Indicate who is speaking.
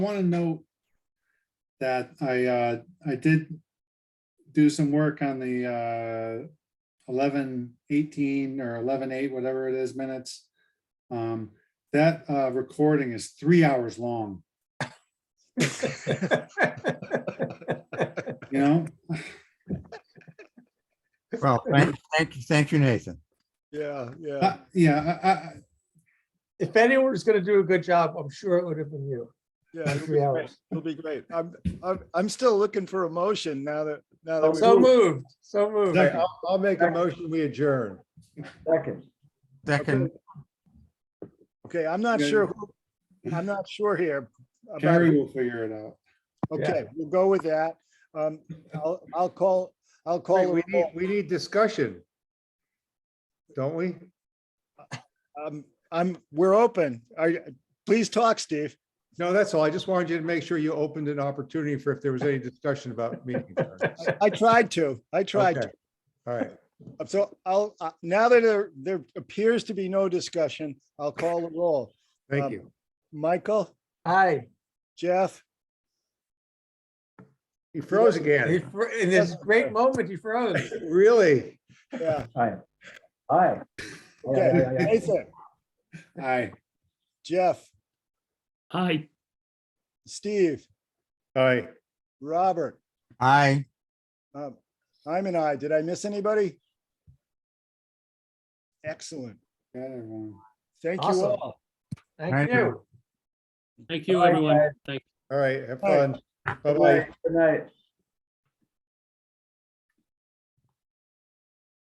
Speaker 1: want to note that I, uh, I did do some work on the, uh, eleven eighteen or eleven eight, whatever it is minutes. Um, that, uh, recording is three hours long, you know?
Speaker 2: Well, thank, thank, thank you, Nathan.
Speaker 3: Yeah, yeah.
Speaker 1: Uh, Yeah, I, I,
Speaker 4: If anyone was gonna do a good job, I'm sure it would have been you.
Speaker 3: Yeah, it'll be
Speaker 4: Three
Speaker 3: great.
Speaker 4: hours.
Speaker 3: It'll be great. I'm, I'm, I'm still looking for a motion now that, now that.
Speaker 4: So
Speaker 3: we-
Speaker 4: moved, so moved.
Speaker 1: Second.
Speaker 5: Oh, I'll, I'll make a motion, we adjourn.
Speaker 4: Second.
Speaker 2: Second,
Speaker 3: Okay, I'm not
Speaker 1: Yeah.
Speaker 3: sure, who- I'm not sure here. about-
Speaker 1: Carrie will figure it out.
Speaker 3: Okay, we'll go with that. Um, I'll, I'll call, I'll
Speaker 5: Wait,
Speaker 3: call.
Speaker 5: we need, we need discussion. Don't we?
Speaker 3: Um, I'm, we're open. Are, you- please talk, Steve.
Speaker 5: No, that's all. I just wanted you to make sure you opened an opportunity for if there was any discussion about meeting. adjournments.
Speaker 3: I tried to, I tried to.
Speaker 5: Okay. All right,
Speaker 3: So I'll, uh, now that there, there appears to be no discussion, I'll call the roll.
Speaker 5: thank
Speaker 3: Um,
Speaker 5: you.
Speaker 3: Michael,
Speaker 4: Hi.
Speaker 3: Jeff,
Speaker 5: He froze
Speaker 4: He
Speaker 5: again,
Speaker 4: fr- In this great moment, he froze.
Speaker 5: really?
Speaker 3: yeah,
Speaker 6: Hi.
Speaker 3: okay, Nathan,
Speaker 1: Aye.
Speaker 3: Jeff,
Speaker 7: Hi,
Speaker 3: Steve,
Speaker 5: All right,
Speaker 3: Robert,
Speaker 2: aye.
Speaker 3: um, I'm an I. Did I miss anybody? Excellent.
Speaker 1: Got everyone.
Speaker 3: Thank you
Speaker 4: Awesome.
Speaker 3: all.
Speaker 4: Thank
Speaker 2: Thank you.
Speaker 4: you.
Speaker 7: thank you,
Speaker 6: Bye,
Speaker 7: everyone.
Speaker 6: guys.
Speaker 7: Thank
Speaker 5: all right, have
Speaker 3: All
Speaker 5: fun. Bye-bye.
Speaker 6: Good night.